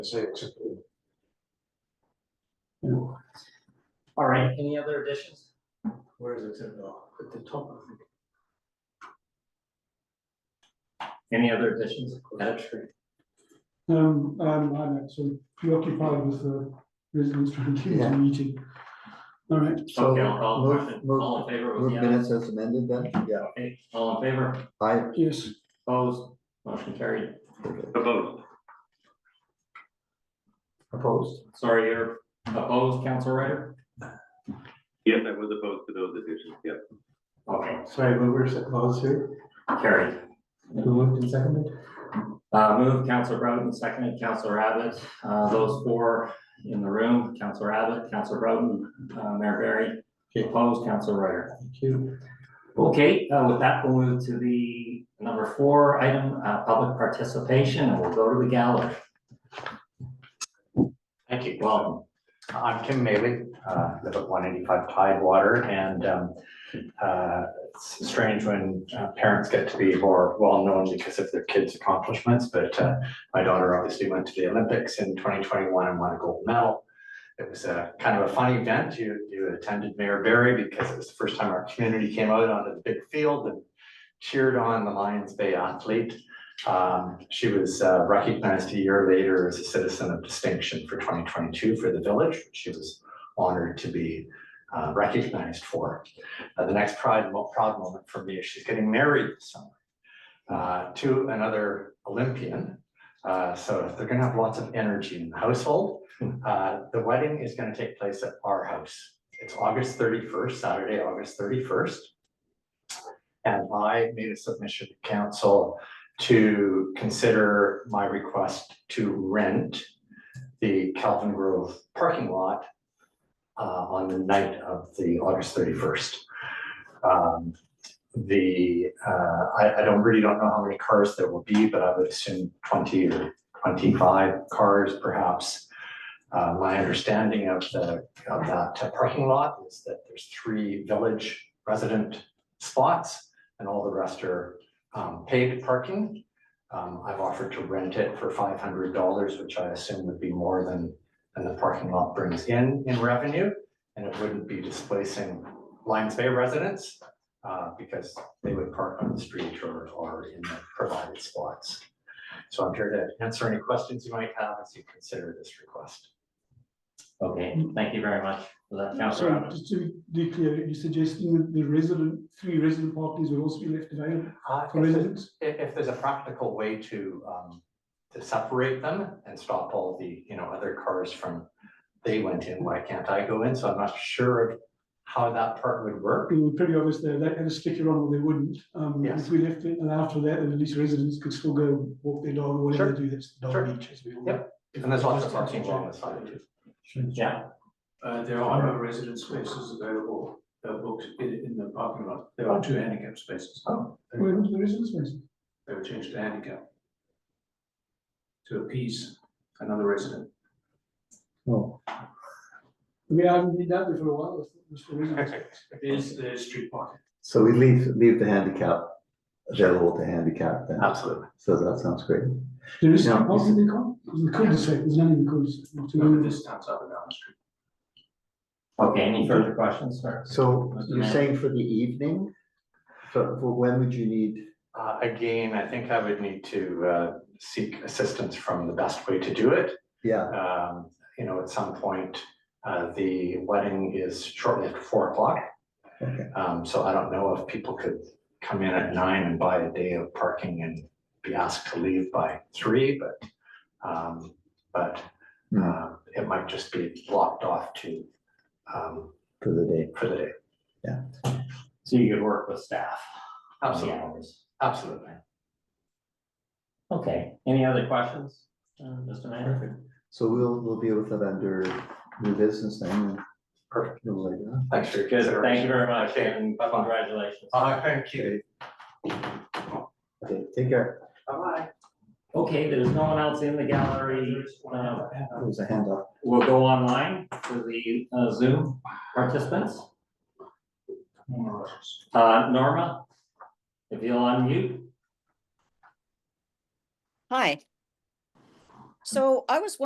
say except for All right, any other additions? Where is it in the, at the top? I think. Any other additions? That's Um, I'm, I'm actually preoccupied with the residents trying to get Yeah. to the meeting. All right, So, Okay, I'll call the move- question. move- All in favor, Move vote yes. minutes as amended then, yeah, Okay, All in favor, I, yes, opposed, motion carried. Opposed, opposed, Sorry, you're opposed, Council Ryder? yes, I was opposed to those additions, yes. Okay, Sorry, but where's the clause here? carried. Who moved and seconded? Uh, move Council Broughton, seconded Council Abbott. Uh, those four in the room, Council Abbott, Council Broughton, uh, Mayor Barry. Okay. Opposed, Council Ryder. Thank you. Okay, uh, with that, we'll move to the number four item, uh, public participation, and we'll go to the gallery. Thank you. Welcome. I'm Tim Maley, uh, live at one eighty-five Tidewater, and, um, uh, it's strange when uh, parents get to be more well-known because of their kids' accomplishments, but, uh, my daughter obviously went to the Olympics in twenty twenty-one and won a gold medal. It was a kind of a funny event. You, you attended Mayor Barry because it was the first time our community came out onto the big field and cheered on the Lions Bay athlete. Um, she was uh, recognized a year later as a citizen of distinction for twenty twenty-two for the village, which she was honored to be uh, recognized for. Uh, the next pride, mo- proud moment for me is she's getting married this summer uh, to another Olympian. Uh, so if they're gonna have lots of energy in the household. Uh, the wedding is gonna take place at our house. It's August thirty-first, Saturday, August thirty-first. And I made a submission to council to consider my request to rent the Calvin Grove parking lot uh, on the night of the August thirty-first. Um, The, uh, I, I don't, really don't know how many cars there will be, but I would assume twenty or twenty-five cars perhaps. Uh, My understanding of the, of that parking lot is that there's three village resident spots and all the rest are um, paid parking. Um, I've offered to rent it for five hundred dollars, which I assume would be more than, than the parking lot brings in, in revenue. And it wouldn't be displacing Lions Bay residents, uh, because they would park on the street or, or in the provided spots. So I'm here to answer any questions you might have as you consider this request. Okay, thank you very much for that, Councillor so Abbott. just to be clear, you're suggesting that the resident, three resident parties will also be left available Uh, for if there's- residents? if, if there's a practical way to, um, to separate them and stop all the, you know, other cars from, they went in, why can't I go in? So I'm not sure of how that part would work. It would be pretty obvious there, they had a sticker on or they wouldn't. Um, Yes. if we left it allowed for that, then at least residents could still go walk their dog or whatever they do, that's the Sure. dog beach as we all. Yep. know. And there's lots of parking along the side too. Yeah, Uh, there are no resident spaces available, uh, booked in, in the parking lot. There are two handicap spaces. Oh. Where was the residents' place? They were changed to handicap. To appease another resident. I mean, I haven't been down there for a while, it was for residents. There's, there's street parking. so we leave, leave the handicap available to handicap then, Absolutely. so that sounds great. There is Yeah. some parking there, Carl? There's the cul-de-sac, there's none in the cul-de-sac. not to None me. of this stands up and down the street. okay, any further questions, sir? So you're Yeah. saying for the evening, for, for when would you need, Uh, again, I think I would need to, uh, seek assistance from the best way to do it. yeah, um, you know, at some point, uh, the wedding is shortly after four o'clock. Okay. Um, so I don't know if people could come in at nine and buy a day of parking and be asked to leave by three, but, um, but, Hmm. uh, it might just be blocked off to, um, for the day? for the day. So you could work with staff. on the hours. Absolutely. Okay, any other questions, uh, Mr. Mayor? So we'll, we'll deal with it under new business then. and Perfect. we'll let you know. Thanks for your Good, thank you consideration. very much, Okay. and congratulations. Uh, thank you. Okay, take care. Bye-bye. Okay, there's no one else in the gallery. Uh, There's a hand up. We'll go online for the uh, Zoom participants. Uh, Norma, if you'll unmute. Hi. So I was